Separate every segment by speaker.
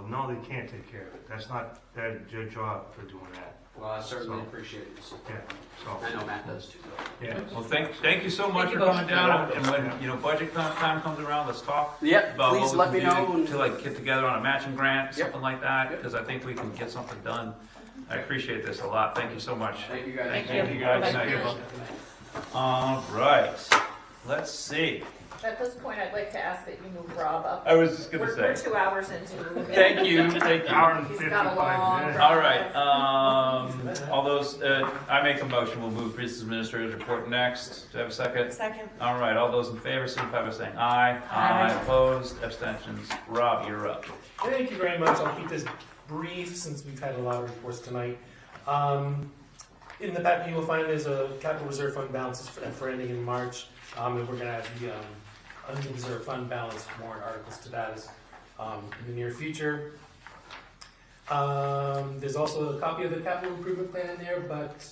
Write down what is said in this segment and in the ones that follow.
Speaker 1: no, they can't take care of it. That's not their, their job for doing that.
Speaker 2: Well, I certainly
Speaker 1: So-
Speaker 2: appreciate it, Mr.
Speaker 1: Yeah, so,
Speaker 2: I know Matt does too.
Speaker 1: yeah.
Speaker 3: Well, thank, thank you so much
Speaker 4: Thank
Speaker 3: for
Speaker 4: you
Speaker 3: coming
Speaker 4: both.
Speaker 3: down, and when, you know, budget com- time comes around, let's talk
Speaker 2: Yep,
Speaker 3: about
Speaker 2: please
Speaker 3: what
Speaker 2: let
Speaker 3: we
Speaker 2: me know.
Speaker 3: can do to
Speaker 2: and-
Speaker 3: like get together on a matching grant,
Speaker 2: Yep.
Speaker 3: something like that,
Speaker 2: Yep.
Speaker 3: because I think we can get something done. I appreciate this a lot, thank you so much.
Speaker 2: Thank you guys.
Speaker 3: Thank you guys.
Speaker 4: Thank you.
Speaker 3: Thank you. All right, let's see,
Speaker 4: At this point, I'd like to ask that you move Rob up.
Speaker 3: I was just gonna
Speaker 4: We're- We're
Speaker 3: say,
Speaker 4: two hours into moving.
Speaker 3: thank you, thank you.
Speaker 1: Hour and
Speaker 4: He's got a
Speaker 1: fifty-five
Speaker 4: long
Speaker 1: minutes.
Speaker 4: drive.
Speaker 3: All right, um, all those, uh, I make a motion, we'll move business administrator's report next, do I have a second?
Speaker 5: Second.
Speaker 3: All right, all those in favor, signify by saying aye.
Speaker 5: Aye.
Speaker 3: Opposed, abstentions. Rob, you're up.
Speaker 6: Thank you very much. I'll keep this brief since we've had a lot of reports tonight. Um, in the packet, you will find there's a capital reserve fund balance for, for ending in March, um, and we're going to have the um, unreserved fund balance warrant articles to that as, um, in the near future. Um, there's also a copy of the capital improvement plan in there, but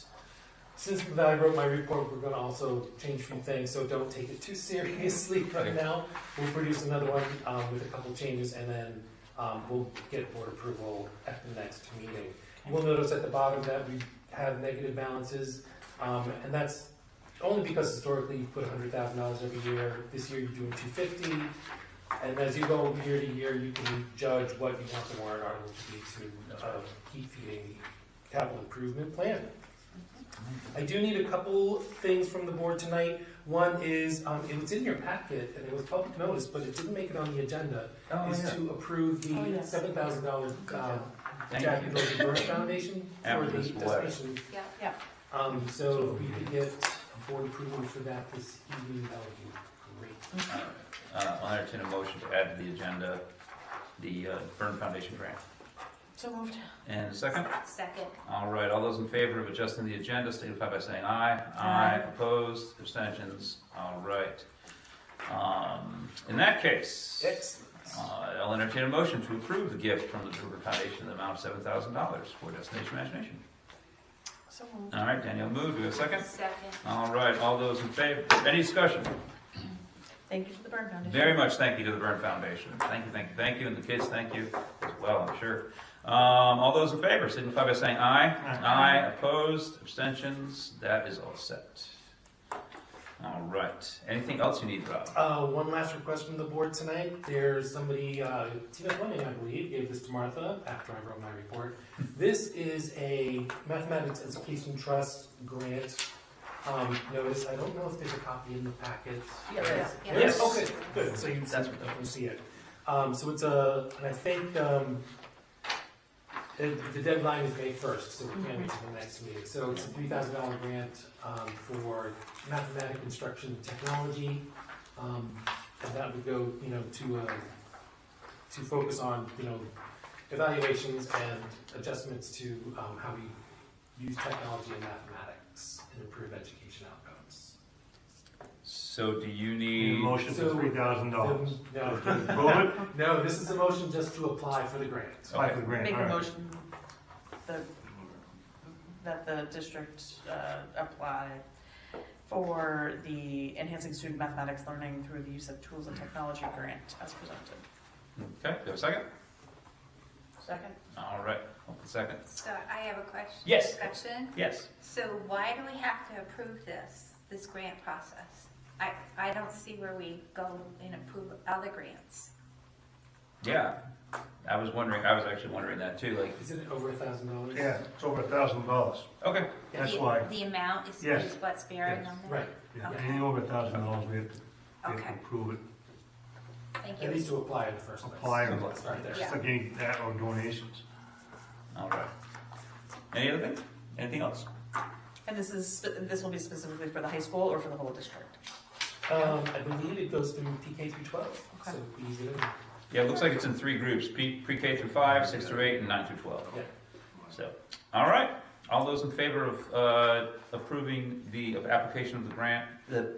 Speaker 6: since I wrote my report, we're going to also change a few things, so don't take it too seriously right now. We'll produce another one um, with a couple changes, and then um, we'll get board approval at the next meeting. You will notice at the bottom that we have negative balances, um, and that's only because historically you put hundred thousand dollars every year. This year you're doing two fifty, and as you go year to year, you can judge what you want the warrant article to be to uh, keep feeding the capital improvement plan. I do need a couple things from the board tonight. One is, um, it was in your packet and it was public notice, but it didn't make it on the agenda is to approve
Speaker 5: Oh,
Speaker 6: the
Speaker 5: yeah.
Speaker 6: seven thousand dollar
Speaker 3: Thank
Speaker 6: Jackie
Speaker 3: you.
Speaker 6: Rose Burns Foundation for
Speaker 3: After
Speaker 6: the
Speaker 3: this letter.
Speaker 6: destination.
Speaker 4: Yeah,
Speaker 5: yeah.
Speaker 6: Um, so if we could get board approval for that this evening, that would be great.
Speaker 3: Uh, I'll entertain a motion to add to the agenda the uh, Byrne Foundation grant.
Speaker 5: So moved.
Speaker 3: And a second?
Speaker 4: Second.
Speaker 3: All right, all those in favor of adjusting the agenda signify by saying aye.
Speaker 5: Aye.
Speaker 3: Opposed, abstentions. All right. Um, In that case, uh, I'll entertain a motion to approve the gift from the Druper Foundation in the amount of $7,000 for Destination Imagination.
Speaker 5: So moved.
Speaker 3: All right, Danielle moved. Do we have a second?
Speaker 4: Second.
Speaker 3: All right, all those in favor? Any discussion?
Speaker 5: Thank you to the Byrne Foundation.
Speaker 3: Very much thank you to the Byrne Foundation. Thank you, thank you, thank you, and the kids, thank you as well, I'm sure. Um, all those in favor signify by saying aye.
Speaker 1: Aye.
Speaker 3: opposed, abstentions, that is all set. All right, anything else you need, Rob?
Speaker 6: Uh, one last request from the board tonight. There's somebody, uh, Tina Fleming, I believe, gave this to Martha after I wrote my report. This is a mathematics education trust grant, um, notice. I don't know if there's a copy in the packet.
Speaker 5: Yeah, there is.
Speaker 4: Yeah.
Speaker 6: Yes, okay, good, so you,
Speaker 3: That's
Speaker 6: that's
Speaker 3: what
Speaker 6: what
Speaker 3: that
Speaker 6: you see it. Um, so it's a, and I think, um, the, the deadline is May first, so we can't wait till the next meeting. So it's a three thousand dollar grant, um, for mathematic instruction technology. Um, and that would go, you know, to, uh, to focus on, you know, evaluations and adjustments to, um, how we use technology and mathematics and improve education outcomes.
Speaker 3: So do you
Speaker 1: Need a
Speaker 3: need,
Speaker 1: Motion for
Speaker 6: So-
Speaker 1: three thousand dollars.
Speaker 6: No,
Speaker 1: Approve it,
Speaker 6: No, this is a motion just to apply for the grant.
Speaker 1: apply for the grant,
Speaker 5: Make
Speaker 1: all
Speaker 5: a
Speaker 1: right.
Speaker 5: motion that, that the district uh, apply for the enhancing student mathematics learning through the use of tools and technology grant as presented.
Speaker 3: okay, do you have a second?
Speaker 5: Second.
Speaker 3: All right, hold on a second.
Speaker 7: So I have a question.
Speaker 3: Yes.
Speaker 7: Discussion.
Speaker 3: Yes,
Speaker 7: So why do we have to approve this, this grant process? I, I don't see where we go and approve other grants.
Speaker 3: yeah, I was wondering, I was actually wondering that too, like,
Speaker 6: Isn't it over a thousand dollars?
Speaker 1: Yeah, it's over a thousand dollars.
Speaker 3: okay,
Speaker 1: That's
Speaker 7: The-
Speaker 1: why.
Speaker 7: The amount is,
Speaker 1: Yes.
Speaker 7: is what's bearing on there?
Speaker 6: Right,
Speaker 1: Yeah, Anything over a thousand dollars, we have to, we have to
Speaker 7: Okay.
Speaker 1: approve it,
Speaker 7: Thank
Speaker 6: at
Speaker 7: you.
Speaker 6: least to apply in the first place.
Speaker 1: apply or
Speaker 3: Apply.
Speaker 6: Start there.
Speaker 1: It's like any, that or donations.
Speaker 3: all right. Any other thing? Anything else?
Speaker 5: And this is, spe- this will be specifically for the high school or for the whole district?
Speaker 6: Um, I believe it goes through PK through twelve, so
Speaker 5: Okay.
Speaker 6: it'd be easy to,
Speaker 3: Yeah, it looks like it's in three groups, P- pre-K through five, six through eight, and nine through twelve.
Speaker 6: yeah.
Speaker 3: So, all right, all those in favor of uh, approving the application of the grant, the,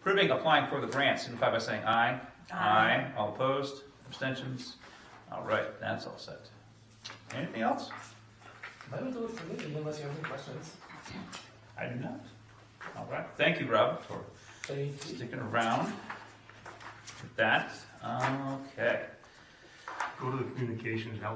Speaker 3: approving applying for the grant, signify by saying aye.
Speaker 5: Aye.
Speaker 3: All opposed, abstentions? All right, that's all set. Anything else?
Speaker 6: That'll do it for me, unless you have any questions.
Speaker 3: I do not. All right, thank you, Rob, for
Speaker 6: Thank you.
Speaker 3: sticking around with that. Okay.
Speaker 1: Go to the communications, help